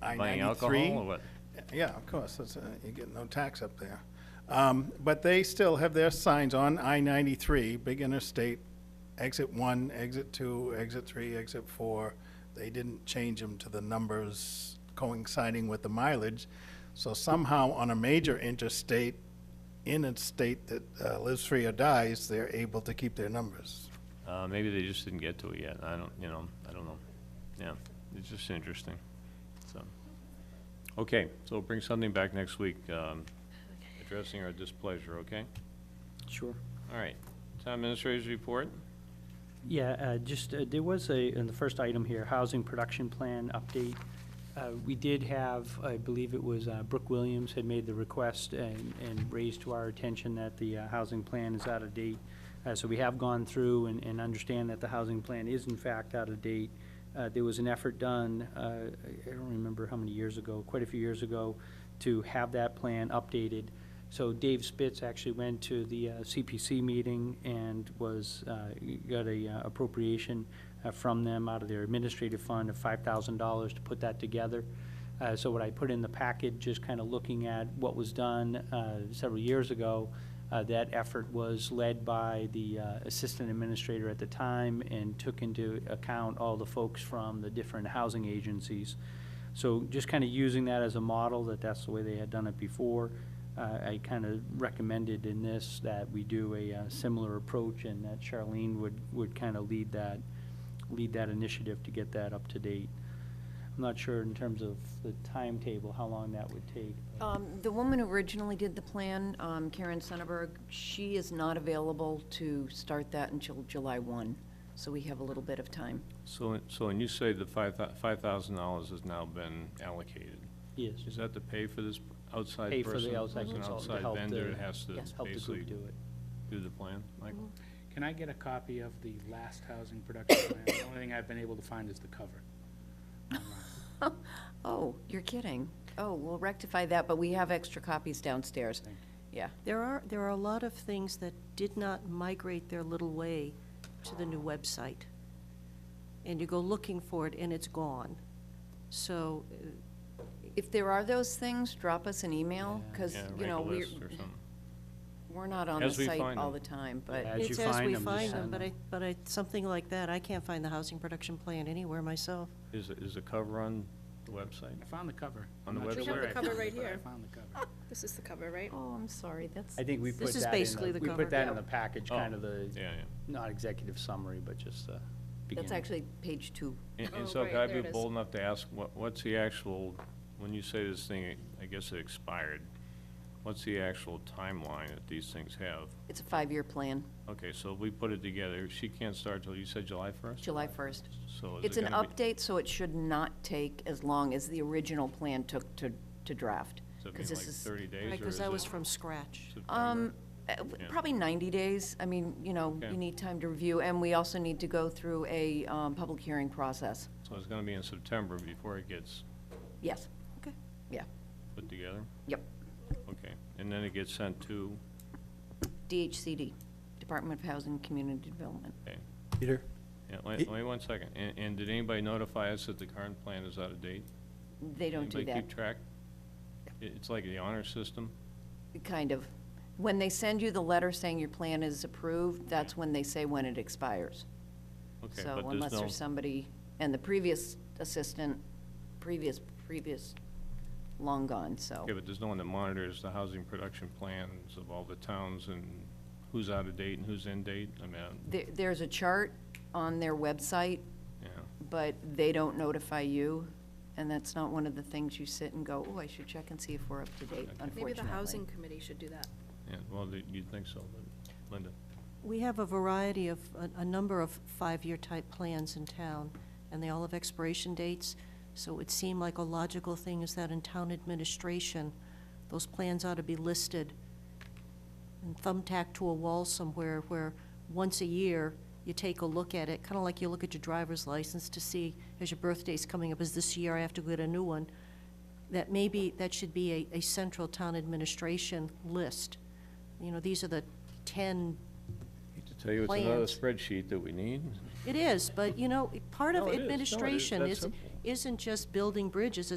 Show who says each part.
Speaker 1: Buying alcohol
Speaker 2: I-93.
Speaker 1: or what?
Speaker 2: Yeah, of course, that's, uh, you get no tax up there. Um, But they still have their signs on I-93, big interstate, exit one, exit two, exit three, exit four. They didn't change them to the numbers coinciding with the mileage. So somehow on a major interstate, in a state that uh, lives free or dies, they're able to keep their numbers.
Speaker 1: Uh, maybe they just didn't get to it yet. I don't, you know, I don't know. Yeah, it's just interesting, so. Okay, so bring something back next week, um, addressing our displeasure, okay?
Speaker 3: Sure.
Speaker 1: All right. Town Administrator's report?
Speaker 3: Yeah, uh, just, uh, there was a, in the first item here, housing production plan update. Uh, We did have, I believe it was uh, Brooke Williams had made the request and, and raised to our attention that the uh, housing plan is out of date. Uh, So we have gone through and, and understand that the housing plan is in fact out of date. Uh, There was an effort done, uh, I I don't remember how many years ago, quite a few years ago, to have that plan updated. So Dave Spitz actually went to the uh, CPC meeting and was, uh, got a uh, appropriation uh, from them out of their administrative fund of five thousand dollars to put that together. Uh, So what I put in the packet, just kind of looking at what was done uh, several years ago, uh, that effort was led by the uh, assistant administrator at the time and took into account all the folks from the different housing agencies. So just kind of using that as a model, that that's the way they had done it before, uh, I kind of recommended in this that we do a uh, similar approach and that Charlene would, would kind of lead that, lead that initiative to get that up to date. I'm not sure in terms of the timetable, how long that would take.
Speaker 4: Um, The woman who originally did the plan, um, Karen Sonnenberg, she is not available to start that until July 1, so we have a little bit of time.
Speaker 1: So, so when you say the five, five thousand dollars has now been allocated,
Speaker 5: Oh.
Speaker 3: Yes,
Speaker 1: is that to pay for this outside
Speaker 3: Pay
Speaker 1: person?
Speaker 3: for the outside
Speaker 1: It's an
Speaker 3: consultant to
Speaker 1: outside
Speaker 3: help
Speaker 1: vendor
Speaker 3: the-
Speaker 1: that has to
Speaker 4: yes,
Speaker 3: help the
Speaker 1: basically
Speaker 3: group do it.
Speaker 1: do the plan, Michael?
Speaker 6: Can I get a copy of the last housing production plan? The only thing I've been able to find is the cover.
Speaker 4: Oh, you're kidding. Oh, we'll rectify that, but we have extra copies downstairs. Yeah.
Speaker 5: There are, there are a lot of things that did not migrate their little way to the new website. And you go looking for it and it's gone. So, uh,
Speaker 4: If there are those things, drop us an email, because,
Speaker 1: Yeah,
Speaker 4: you
Speaker 1: make a
Speaker 4: know, we're,
Speaker 1: list or something.
Speaker 4: we're not on the
Speaker 1: As we
Speaker 4: site
Speaker 1: find
Speaker 4: all the
Speaker 1: them.
Speaker 4: time, but,
Speaker 3: As you
Speaker 5: it's as
Speaker 3: find
Speaker 5: we
Speaker 3: them, just
Speaker 5: find them,
Speaker 3: send
Speaker 5: but I,
Speaker 3: them.
Speaker 5: but I, something like that, I can't find the housing production plan anywhere myself.
Speaker 1: Is, the- is the cover on the website?
Speaker 6: I found the cover.
Speaker 1: On the
Speaker 6: I'm not
Speaker 1: website?
Speaker 6: sure
Speaker 1: We have
Speaker 6: where
Speaker 1: the
Speaker 6: I
Speaker 7: cover
Speaker 6: found it,
Speaker 7: right
Speaker 6: but I
Speaker 7: here.
Speaker 6: found the cover.
Speaker 7: This is the cover, right?
Speaker 4: oh, I'm sorry, that's.
Speaker 3: I think we put
Speaker 5: is
Speaker 3: that
Speaker 5: basically
Speaker 3: in, the-
Speaker 5: the
Speaker 3: we
Speaker 5: cover.
Speaker 3: put that in
Speaker 5: Yeah.
Speaker 3: the package,
Speaker 1: Oh,
Speaker 3: kind of the,
Speaker 1: Yeah, yeah.
Speaker 3: not executive summary, but just the beginning.
Speaker 4: That's actually page two.
Speaker 1: And, and
Speaker 7: Oh,
Speaker 1: so
Speaker 7: right,
Speaker 1: could I
Speaker 7: there
Speaker 1: be
Speaker 7: it is.
Speaker 1: bold enough to ask, what, what's the actual, when you say this thing, I guess it expired, what's the actual timeline that these things have?
Speaker 4: It's a five-year plan,
Speaker 1: Okay, so we put it together, she can't start till, you said July first?
Speaker 4: July 1st.
Speaker 1: So is
Speaker 4: It's
Speaker 1: it
Speaker 4: an
Speaker 1: gonna be,
Speaker 4: update, so it should not take as long as the original plan took to, to draft.
Speaker 1: does it mean
Speaker 4: 'cause
Speaker 1: like
Speaker 4: this is-
Speaker 1: thirty days or is
Speaker 5: Right, because that was
Speaker 1: it
Speaker 5: from scratch.
Speaker 1: September?
Speaker 4: Um, uh, w-
Speaker 1: Yeah.
Speaker 4: probably 90 days. I mean, you know,
Speaker 1: Okay.
Speaker 4: you need time to review, and we also need to go through a, um, public hearing process.
Speaker 1: So it's gonna be in September before it gets
Speaker 4: Yes,
Speaker 5: Okay.
Speaker 4: yeah,
Speaker 1: put together?
Speaker 4: yep.
Speaker 1: Okay, and then it gets sent to,
Speaker 4: DHCD, Department of Housing and Community Development.
Speaker 1: okay,
Speaker 3: Peter?
Speaker 1: yeah, wait, wait one second, and, and did anybody notify us that the current plan is out of date?
Speaker 4: They don't do
Speaker 1: Anybody
Speaker 4: that,
Speaker 1: keep track? It- It's like the honor system?
Speaker 4: kind of. When they send you the letter saying your plan is approved, that's when they say when it expires.
Speaker 1: Okay,
Speaker 4: So
Speaker 1: but
Speaker 4: unless there's
Speaker 1: there's no,
Speaker 4: somebody, and the previous assistant, previous, previous, long gone, so.
Speaker 1: okay, but there's no one that monitors the housing production plans of all the towns and who's out of date and who's in date? I mean, I-
Speaker 4: There, there's a chart on their website,
Speaker 1: yeah,
Speaker 4: but they don't notify you, and that's not one of the things you sit and go, oh, I should check and see if we're up to date,
Speaker 7: Maybe
Speaker 4: unfortunately.
Speaker 7: the housing committee should do that.
Speaker 1: yeah, well, the- you'd think so, but Linda,
Speaker 5: We have a variety of, a, a number of five-year type plans in town, and they all have expiration dates, so it would seem like a logical thing is that in town administration, those plans ought to be listed and thumbtacked to a wall somewhere where, once a year, you take a look at it, kind of like you look at your driver's license to see, as your birthday's coming up, is this year I have to get a new one? That maybe, that should be a, a central town administration list. You know, these are the ten
Speaker 1: to tell you, it's another
Speaker 5: Plans.
Speaker 1: spreadsheet that we need.
Speaker 5: it is, but you know, part of
Speaker 1: No, it is. No, it is.
Speaker 5: administration
Speaker 1: That's
Speaker 5: is,
Speaker 1: simple.
Speaker 5: isn't just building bridges,